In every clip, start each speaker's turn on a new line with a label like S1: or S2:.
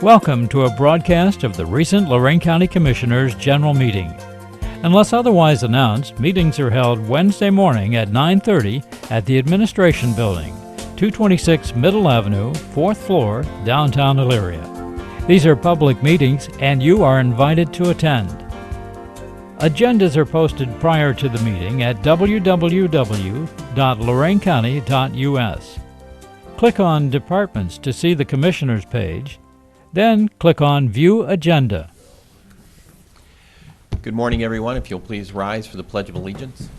S1: Welcome to a broadcast of the recent Lorraine County Commissioners' General Meeting. Unless otherwise announced, meetings are held Wednesday morning at 9:30 at the Administration Building, 226 Middle Avenue, 4th floor, downtown Elyria. These are public meetings and you are invited to attend. Agendas are posted prior to the meeting at www.loraincounty.us. Click on Departments to see the Commissioners page, then click on View Agenda.
S2: Good morning, everyone. If you'll please rise for the Pledge of Allegiance.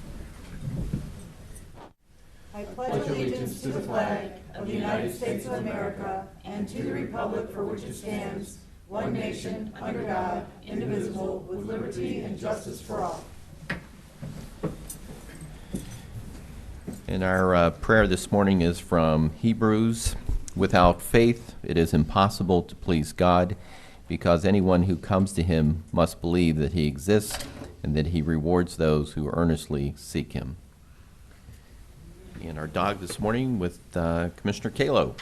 S2: And our uh, prayer this morning is from Hebrews. Without faith, it is impossible to please God because anyone who comes to him must believe that he exists and that he rewards those who earnestly seek him. And our dog this morning with uh, Commissioner Kalo.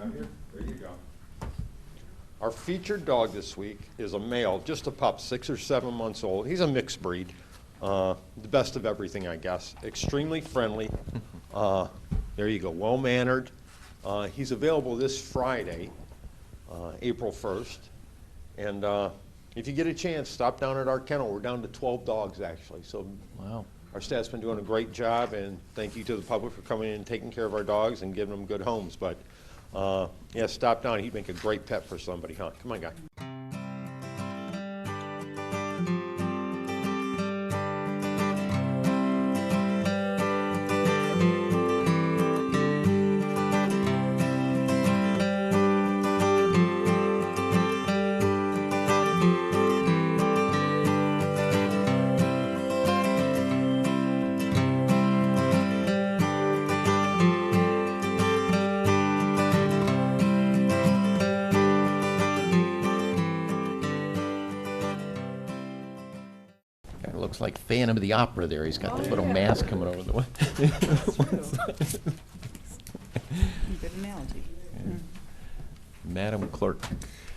S3: Out here? There you go. Our featured dog this week is a male, just a pup, six or seven months old. He's a mixed breed, uh, the best of everything, I guess. Extremely friendly. Uh, there you go, well mannered. Uh, he's available this Friday, uh, April 1st. And uh, if you get a chance, stop down at our kennel. We're down to 12 dogs actually. So
S2: Wow.
S3: our staff's been doing a great job, and thank you to the public for coming in and taking care of our dogs and giving them good homes. But, uh, yeah, stop down. He'd make a great pet for somebody, huh? Come on, guy.
S2: Kind of looks like Phantom of the Opera there. He's got
S4: Oh,
S2: the little mask coming over the way.
S4: Good analogy. Hmm.
S2: Madam Clerk,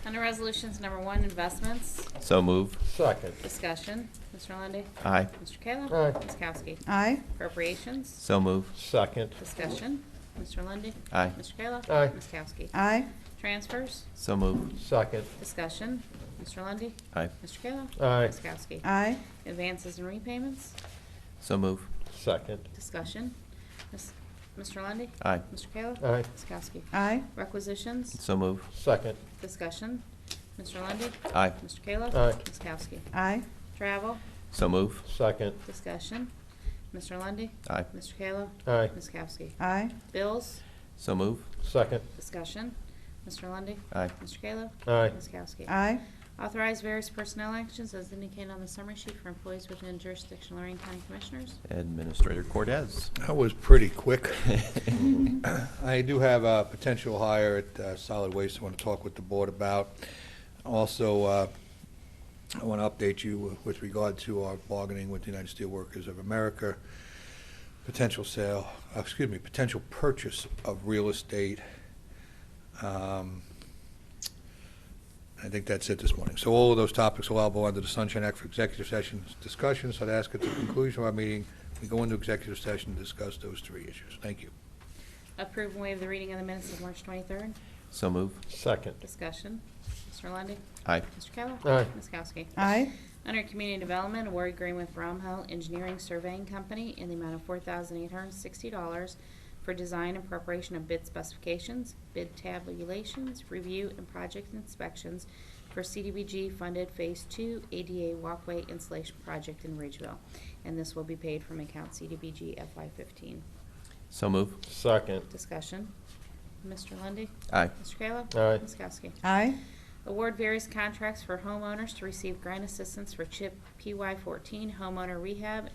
S5: Under Resolutions Number One, Investments,
S2: so move.
S3: Second.
S5: Discussion, Mr. Lundy,
S2: Aye,
S5: Mr. Kayla.
S3: Aye.
S5: Ms. Kowski.
S4: Aye,
S5: Appropriations,
S2: so move.
S3: Second.
S5: Discussion, Mr. Lundy,
S2: Aye,
S5: Mr. Kayla.
S3: Aye.
S5: Ms. Kowski.
S4: aye,
S5: Transfers,
S2: so move.
S3: Second.
S5: Discussion, Mr. Lundy,
S2: Aye,
S5: Mr. Kayla.
S3: Aye.
S5: Ms. Kowski.
S4: aye,
S5: Advances and repayments,
S2: so move.
S3: Second.
S5: Discussion, Ms. Mr. Lundy,
S2: Aye,
S5: Mr. Kayla.
S3: Aye.
S5: Ms. Kowski.
S4: aye,
S5: Requisitions,
S2: so move.
S3: Second.
S5: Discussion, Mr. Lundy,
S2: Aye,
S5: Mr. Kayla.
S3: Aye.
S5: Ms. Kowski.
S4: aye,
S5: Travel,
S2: so move.
S3: Second.
S5: Discussion, Mr. Lundy,
S2: Aye,
S5: Mr. Kayla.
S3: Aye.
S5: Ms. Kowski.
S4: aye,
S5: Bills,
S2: so move.
S3: Second.
S5: discussion. Mr. Lundy,
S2: Aye,
S5: Mr. Kayla.
S3: Aye.
S5: Ms. Kowski.
S4: aye,
S5: Authorize various personnel actions as indicated on the summary sheet for employees within jurisdiction of Lorraine County Commissioners.
S2: Administrator Cortez.
S6: That was pretty quick. I do have a potential hire at uh, Solid Waste I want to talk with the board about. Also, uh, I want to update you with regard to our bargaining with the United Steelworkers of America, potential sale, uh, excuse me, potential purchase of real estate. Um, I think that's it this morning. So all of those topics allowable under the Sunshine Act for executive session discussion. So I'd ask at the conclusion of our meeting, we go into executive session to discuss those three issues. Thank you.
S5: Approve and waive the reading of the minutes of March 23rd.
S2: So move.
S3: Second.
S5: Discussion, Mr. Lundy,
S2: Aye.
S5: Mr. Kayla.
S3: Aye.
S5: Ms. Kowski.
S4: aye,
S5: Under Community Development, award agreement with Bromhill Engineering Surveying Company in the amount of $4,860 for design and preparation of bid specifications, bid tabulations, review, and project inspections for CDBG-funded Phase 2 ADA walkway installation project in Ridgeville. And this will be paid from account CDBG FY15.
S2: So move.
S3: Second.
S5: Discussion. Mr. Lundy,
S2: Aye.
S5: Mr. Kayla?
S3: Aye.
S5: Ms. Kowski?
S4: aye,
S5: Award various contracts for homeowners to receive grant assistance for CHIP PY14 homeowner rehab